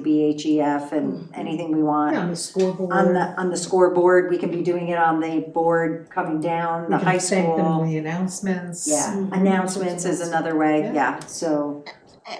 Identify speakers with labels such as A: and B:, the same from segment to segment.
A: BHEF E
B: Mm-hmm.
A: and anything we want.
C: on the scoreboard.
A: On the, on the scoreboard, we can be doing it on the board coming down, the high
C: We can thank them
A: school.
C: in the announcements.
B: Mm-hmm.
A: Yeah, announcements is another way,
C: Yeah.
A: yeah, so,
D: I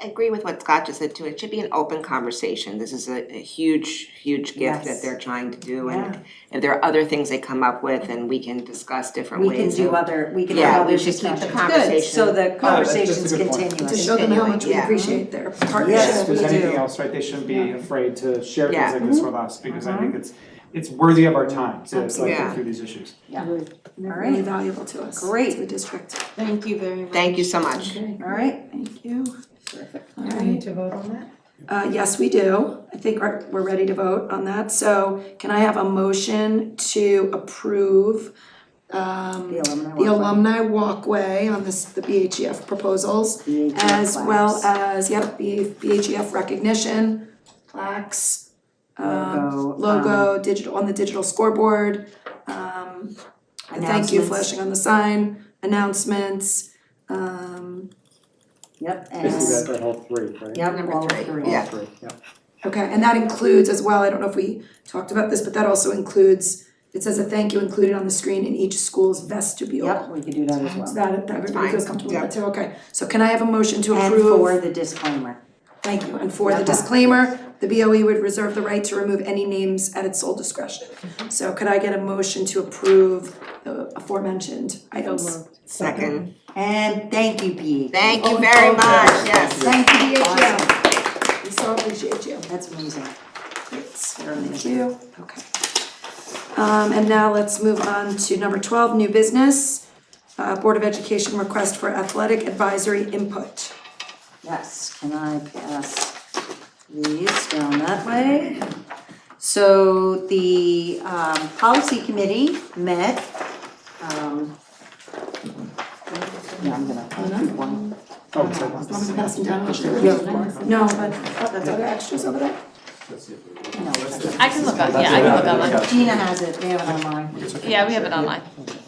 D: I agree with what Scott just said too, it should be an open conversation, this is a a huge, huge gift
A: Yes.
D: that they're trying to do
A: Yeah.
D: and if there are other things they come up with and we can discuss different
A: we can
D: ways
A: do
D: of,
A: other, we can
D: yeah,
A: have other
D: we should keep
A: discussions.
D: the conversation. Oh,
A: So the conversation's
E: good point.
A: continuous.
B: To show them how much we
D: Yeah.
B: appreciate their
A: Yes,
E: Yes,
B: partnership.
E: if there's
A: we
E: anything
A: do.
E: else, right, they shouldn't be afraid to share
D: Yeah.
E: things like this with us, because I think it's, it's worthy of our time to like
A: Absolutely.
E: go
D: Yeah.
E: through these issues.
B: And they're
A: All
B: really
A: right.
B: valuable to us,
A: Great.
B: to the district.
F: Thank you very much.
D: thank you so much.
A: All right,
B: Thank you. All
C: Do we
B: right.
C: need to vote on that?
B: Uh, yes, we do. I think we're, we're ready to vote on that. So can I have a motion to approve um,
A: the alumni
B: the
A: walkway.
B: alumni walkway on this, the BHEF proposals,
A: BHF
B: as well
A: class,
B: as, yep, the BHEF E recognition, plaques, um,
A: logo, um,
B: logo, digital, on the digital scoreboard, um, the thank you
A: announcements.
B: flashing on the sign, announcements, um,
A: Yep, and,
E: Basically, that, that all three, right?
A: yep,
D: Number
A: all
D: three,
A: three.
E: All
D: yeah.
E: three, yeah.
B: okay, and that includes as well, I don't know if we talked about this, but that also includes, it says a thank you included on the screen in each school's vestibule.
A: Yep, we could do that as
B: So
A: well.
B: that, that everybody
D: Fine,
B: feels comfortable with
D: yeah.
B: that too, okay. So can I have a motion to
A: And
B: approve?
A: for the disclaimer.
B: Thank you, and for the
A: Yeah.
B: disclaimer, the BOE would reserve the right to remove any names at its sole discretion.
A: Mm-hmm.
B: So could I get a motion to approve the aforementioned items?
D: Second,
A: And thank you, Pete.
D: thank you very much, yes.
B: Thank you,
A: Awesome.
B: DHL. We so appreciate you.
A: That's amazing.
B: Great, thank you, okay. Um, and now let's move on to number twelve, new business. Uh, Board of Education request for athletic advisory input.
A: Yes, can I pass these down that way? So the um policy committee met, um. Yeah, I'm gonna,
B: Uh-huh.
A: one.
E: Oh, sorry.
B: I'm passing down.
A: Yeah.
B: No, but, oh, that's other extras over there?
A: No, it's-
G: I can look up, yeah, I can look online.
A: Gina has it, we have it online.
G: Yeah, we have it online.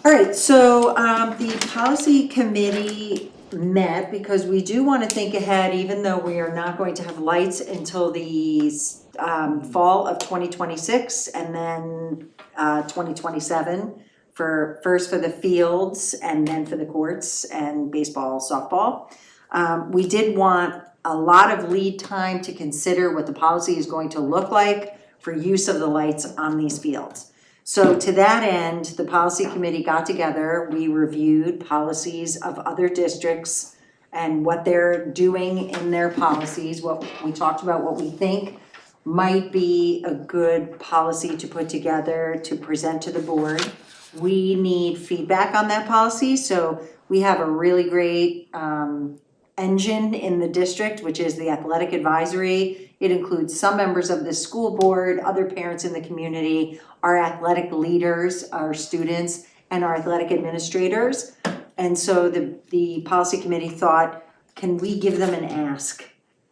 A: All right, so um the policy committee met because we do wanna think ahead, even though we are not going to have lights until the um fall of twenty twenty-six and then uh twenty twenty-seven for, first for the fields and then for the courts and baseball, softball. Um, we did want a lot of lead time to consider what the policy is going to look like for use of the lights on these fields. So to that end, the policy committee got together, we reviewed policies of other districts and what they're doing in their policies, what, we talked about what we think might be a good policy to put together to present to the board. We need feedback on that policy, so we have a really great um engine in the district, which is the athletic advisory. It includes some members of the school board, other parents in the community, our athletic leaders, our students, and our athletic administrators. And so the the policy committee thought, can we give them an ask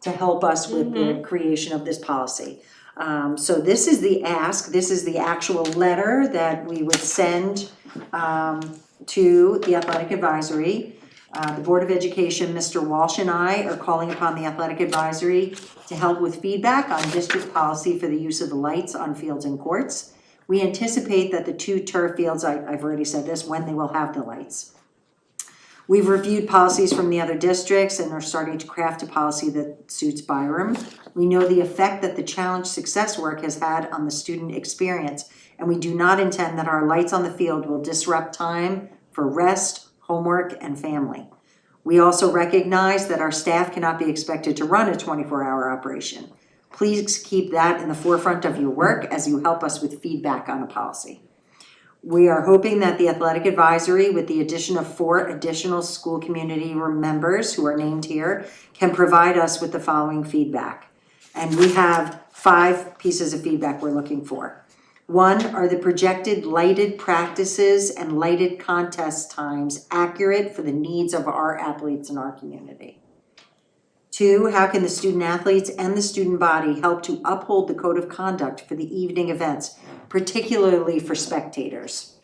A: to help us with the creation of this policy? Um, so this is the ask, this is the actual letter that we would send um, to the athletic advisory. Uh, the Board of Education, Mr. Walsh and I are calling upon the athletic advisory to help with feedback on district policy for the use of the lights on fields and courts. We anticipate that the two turf fields, I, I've already said this, when they will have the lights. We've reviewed policies from the other districts and are starting to craft a policy that suits Byram. We know the effect that the challenge success work has had on the student experience, and we do not intend that our lights on the field will disrupt time for rest, homework, and family. We also recognize that our staff cannot be expected to run a twenty-four hour operation. Please keep that in the forefront of your work as you help us with feedback on a policy. We are hoping that the athletic advisory, with the addition of four additional school community members who are named here, can provide us with the following feedback. And we have five pieces of feedback we're looking for. One, are the projected lighted practices and lighted contest times accurate for the needs of our athletes in our community? Two, how can the student athletes and the student body help to uphold the code of conduct for the evening events, particularly for spectators?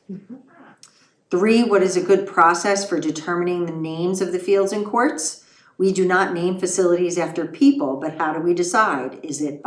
A: Three, what is a good process for determining the names of the fields and courts? We do not name facilities after people, but how do we decide? Is it